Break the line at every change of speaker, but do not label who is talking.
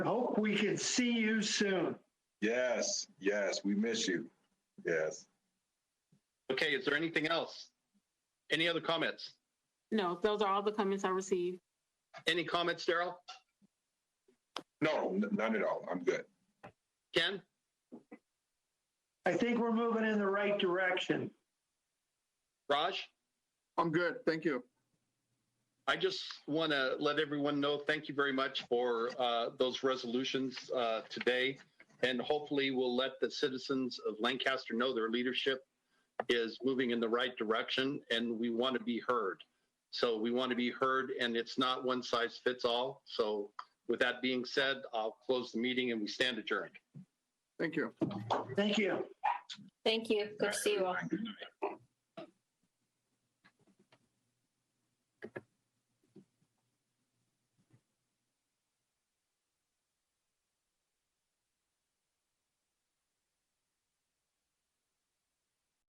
we could see you soon.
Yes, yes, we miss you. Yes.
Okay, is there anything else? Any other comments?
No, those are all the comments I received.
Any comments, Daryl?
No, n- none at all. I'm good.
Ken?
I think we're moving in the right direction.
Raj?
I'm good, thank you.
I just want to let everyone know, thank you very much for uh, those resolutions uh, today. And hopefully we'll let the citizens of Lancaster know their leadership is moving in the right direction and we want to be heard. So we want to be heard and it's not one size fits all. So with that being said, I'll close the meeting and we stand adjourned.
Thank you.
Thank you.
Thank you. Good to see you all.
Good night.